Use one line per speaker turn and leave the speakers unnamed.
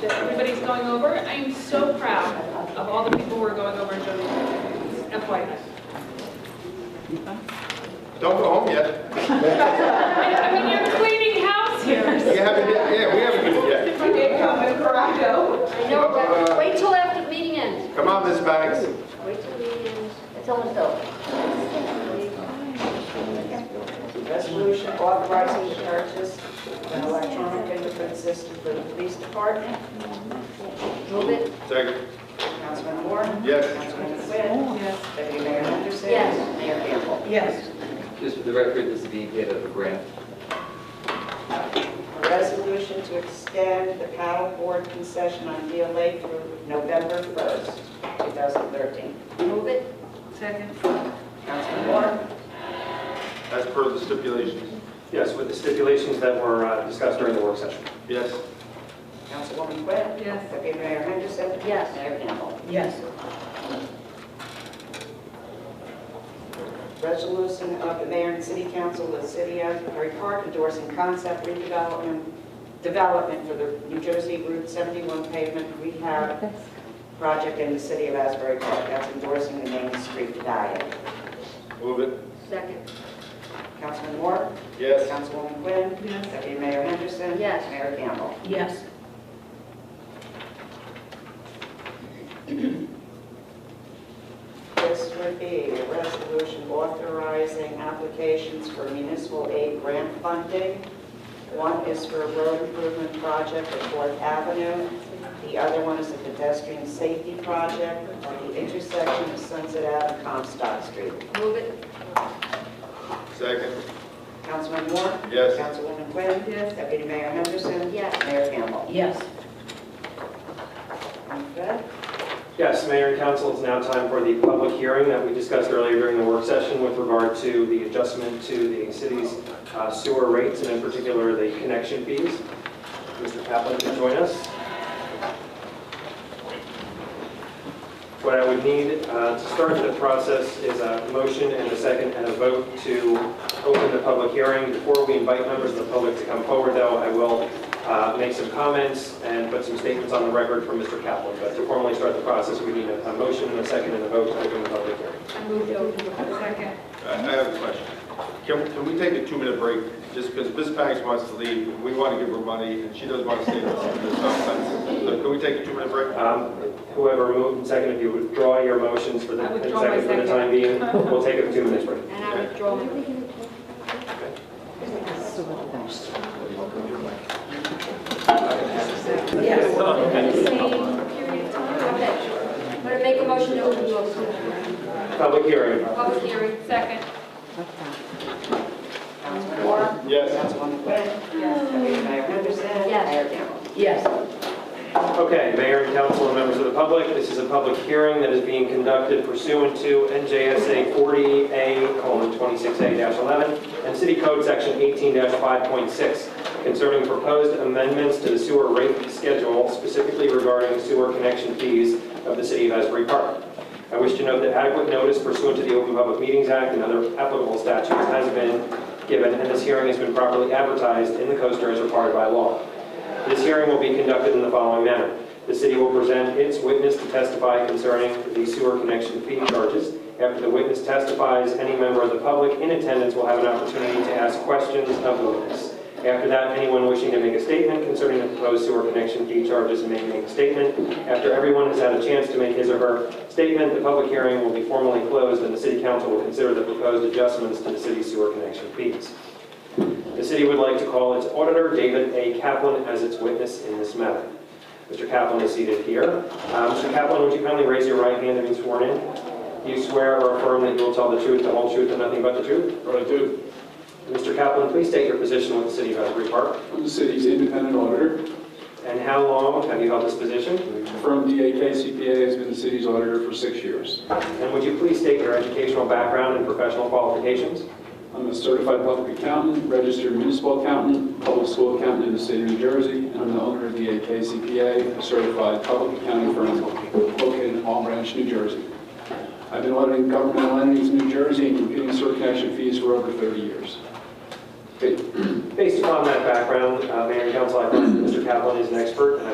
that everybody's going over. I am so proud of all the people who are going over and doing FYI.
Don't go home yet.
I I mean, you're cleaning house here.
You haven't, hit- yeah, we haven't hit yet.
I know, but wait till after the meeting ends.
Come on, Miss Banks.
Wait till the meeting ends. It's almost over.
Resolution authorizing the purchase of an electronic fingerprint system for the police department.
Move it.
Second.
Councilman Moore?
Yes.
Councilman Quinn?
Yes.
Deputy Mayor Henderson?
Yes.
Mayor Campbell?
Yes.
Just for the record, this is being paid out of a grant.
A resolution to extend the paddleboard concession on Deal Lake through November 1st, 2013.
Move it.
Second.
Councilman Moore?
As per the stipulations.
Yes, with the stipulations that were uh, discussed during the work session.
Yes.
Councilwoman Quinn?
Yes.
Deputy Mayor Henderson?
Yes.
Mayor Campbell?
Yes.
Resolution of the mayor and city council of the city of Asbury Park endorsing concept redevelopment, development for the New Jersey Route 71 pavement rehab project in the city of Asbury Park. That's endorsing the main street diet.
Move it.
Second.
Councilman Moore?
Yes.
Councilwoman Quinn?
Yes.
Deputy Mayor Henderson?
Yes.
Mayor Campbell?
Yes.
This would be a resolution authorizing applications for municipal aid grant funding. One is for a road improvement project at Fourth Avenue. The other one is a pedestrian safety project on the intersection of Sunset Ave and Comstock Street.
Move it.
Second.
Councilman Moore?
Yes.
Councilwoman Quinn?
Yes.
Deputy Mayor Henderson?
Yes.
Mayor Campbell?
Yes.
Okay.
Yes, Mayor and Council, it's now time for the public hearing that we discussed earlier during the work session with regard to the adjustment to the city's uh, sewer rates and in particular the connection fees. Mr. Kaplan can join us. What I would need uh, to start the process is a motion and a second and a vote to open the public hearing. Before we invite members of the public to come forward, though, I will uh, make some comments and put some statements on the record from Mr. Kaplan. But to formally start the process, we need a a motion and a second and a vote to open the public hearing.
I moved over. Second.
I I have a question. Can, can we take a two-minute break? Just because Ms. Banks wants to leave, we want to give her money, and she doesn't want to stay with us. It's nonsense. So can we take a two-minute break?
Um, Whoever moved and seconded, if you withdraw your motions for the
I
and
withdraw my
second for the time being, we'll take a two-minute break.
And I withdraw my...
Yes.
Same period of time. Okay. I'm going to make a motion to open the
Public hearing.
public hearing.
Second.
Councilman Moore?
Yes.
Councilwoman Quinn? Deputy Mayor Henderson?
Yes.
Mayor Campbell?
Yes.
Okay, Mayor and Council and members of the public, this is a public hearing that is being conducted pursuant to NJSA 40A:26A-11 and City Code Section 18-5.6 concerning proposed amendments to the sewer rate schedule specifically regarding sewer connection fees of the City of Asbury Park. I wish to note that adequate notice pursuant to the Open Public Meetings Act and other applicable statutes has been given, and this hearing has been properly advertised in the coaster as required by law. This hearing will be conducted in the following manner. The city will present its witness to testify concerning the sewer connection fee charges. After the witness testifies, any member of the public in attendance will have an opportunity to ask questions of the witness. After that, anyone wishing to make a statement concerning the proposed sewer connection fee charges may make a statement. After everyone has had a chance to make his or her statement, the public hearing will be formally closed, and the city council will consider the proposed adjustments to the city's sewer connection fees. The city would like to call its auditor, David A. Kaplan, as its witness in this matter. Mr. Kaplan is seated here. Uh, Mr. Kaplan, would you kindly raise your right hand and be sworn in? Do you swear or affirm that you will tell the truth, the whole truth, and nothing but the truth?
What I do.
Mr. Kaplan, please state your position with the city of Asbury Park.
I'm the city's independent auditor.
And how long have you held this position?
The firm DAK CPA has been the city's auditor for six years.
And would you please state your educational background and professional qualifications?
I'm a certified public accountant, registered municipal accountant, public school accountant in the state of New Jersey, and I'm the owner of DAK CPA, a certified public accounting firm located in Palm Branch, New Jersey. I've been auditing governmental entities in New Jersey and computing sewer connection fees for over 30 years. Okay,
Based upon that background, uh, Mayor and Council, I think Mr. Kaplan is an expert, and I